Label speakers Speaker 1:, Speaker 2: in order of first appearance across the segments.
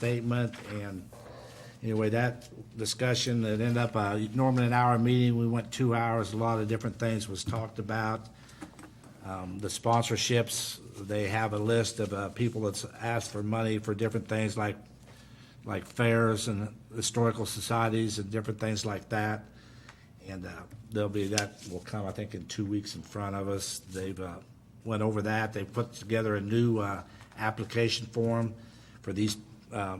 Speaker 1: statement, and anyway, that discussion, it ended up, uh, normally an hour meeting, we went two hours, a lot of different things was talked about. Um, The sponsorships, they have a list of uh, people that's asked for money for different things like, like fairs and historical societies and different things like that. And uh, there'll be, that will come, I think, in two weeks in front of us. They've uh, went over that. They put together a new uh, application form for these uh,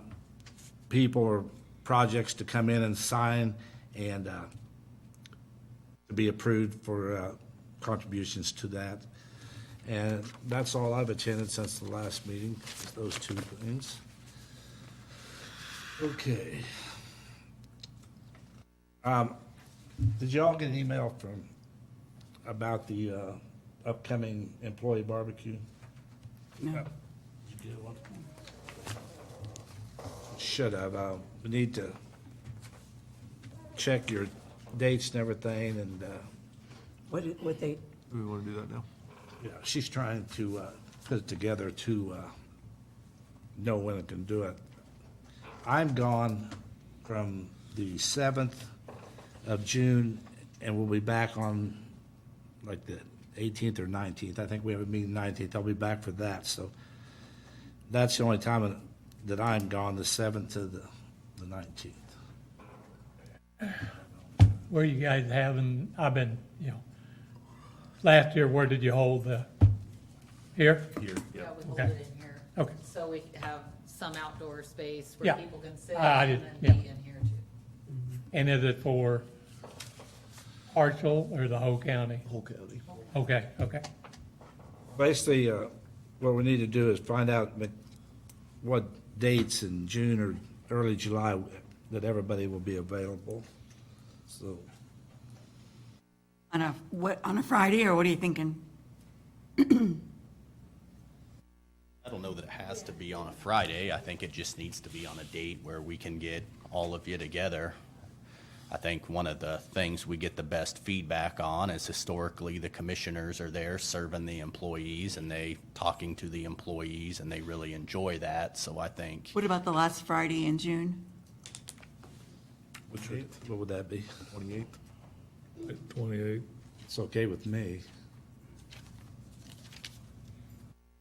Speaker 1: people or projects to come in and sign and uh, to be approved for uh, contributions to that. And that's all I've attended since the last meeting, is those two things. Okay. Did y'all get an email from, about the uh, upcoming employee barbecue? No. Did you get one? Should have, uh, we need to check your dates and everything, and, uh,
Speaker 2: What, did- what they,
Speaker 3: Do we want to do that now?
Speaker 1: yeah, she's trying to, uh, put it together to, uh, know when it can do it. I'm gone from the seventh of June, and we'll be back on like the eighteenth or nineteenth. I think we have a meeting nineteenth. I'll be back for that, so that's the only time that I'm gone, the seventh to the, the nineteenth.
Speaker 4: Where you guys having, I've been, you know, last year, where did you hold the, here?
Speaker 5: Yeah, we hold
Speaker 4: Okay.
Speaker 5: it in here.
Speaker 4: Okay.
Speaker 5: So we have some outdoor space
Speaker 4: Yeah. Ah,
Speaker 5: where people can sit
Speaker 4: I- I
Speaker 5: and
Speaker 4: did-
Speaker 5: then be in here too.
Speaker 4: And is it for partial or the whole county?
Speaker 3: Whole county.
Speaker 4: Okay, okay.
Speaker 1: Basically, uh, what we need to do is find out ma- what dates in June or early July that everybody will be available. So,
Speaker 2: on a, what, on a Friday, or what are you thinking?
Speaker 6: I don't know that it has to be on a Friday. I think it just needs to be on a date where we can get all of you together. I think one of the things we get the best feedback on is historically the commissioners are there serving the employees and they talking to the employees and they really enjoy that. So I think
Speaker 2: What about the last Friday in June?
Speaker 1: which would, what would that be? Twenty-eighth?
Speaker 3: Twenty-eight.
Speaker 1: It's okay with me.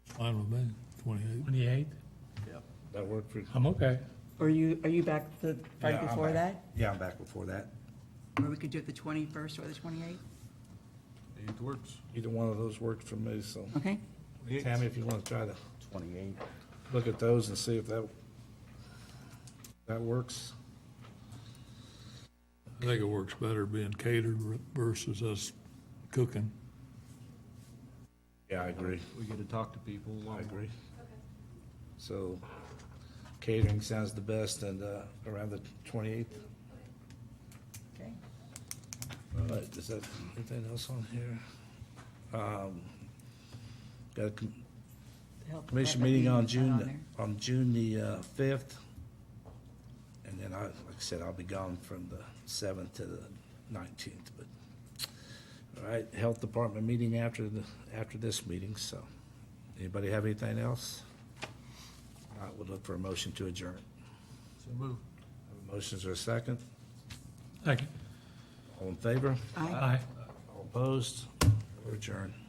Speaker 3: Fine with me, twenty-eight.
Speaker 4: Twenty-eighth?
Speaker 1: That work for?
Speaker 4: I'm okay.
Speaker 2: Or you, are you back the
Speaker 1: Yeah,
Speaker 2: Friday
Speaker 1: I'm
Speaker 2: before
Speaker 1: back.
Speaker 2: that?
Speaker 1: Yeah, I'm back before that.
Speaker 2: Or we could do it the 21st or the 28th?
Speaker 3: Eighth works.
Speaker 1: Either one of those worked for me, so.
Speaker 2: Okay,
Speaker 1: Tammy, if you want to try to
Speaker 6: twenty-eight.
Speaker 1: look at those and see if that, that works.
Speaker 3: I think it works better being catered versus us cooking.
Speaker 1: Yeah, I agree.
Speaker 7: We get to talk to people. a lot
Speaker 1: I
Speaker 7: more.
Speaker 1: agree. So catering sounds the best and, uh, around the twenty-eighth.
Speaker 2: okay.
Speaker 1: All right, is that, anything else on here? Um, Got a com-
Speaker 2: The health
Speaker 1: commission
Speaker 2: department
Speaker 1: meeting on
Speaker 2: meeting's not
Speaker 1: June, on June the uh, fifth. And then I, like I said, I'll be gone from the seventh to the nineteenth, but, all right, health department meeting after the, after this meeting, so. Anybody have anything else? I would look for a motion to adjourn.
Speaker 7: So move.
Speaker 1: Motion's are a second.
Speaker 4: Second.
Speaker 1: All in favor?
Speaker 2: there. Aye.
Speaker 4: Aye.
Speaker 1: All opposed? We're adjourned.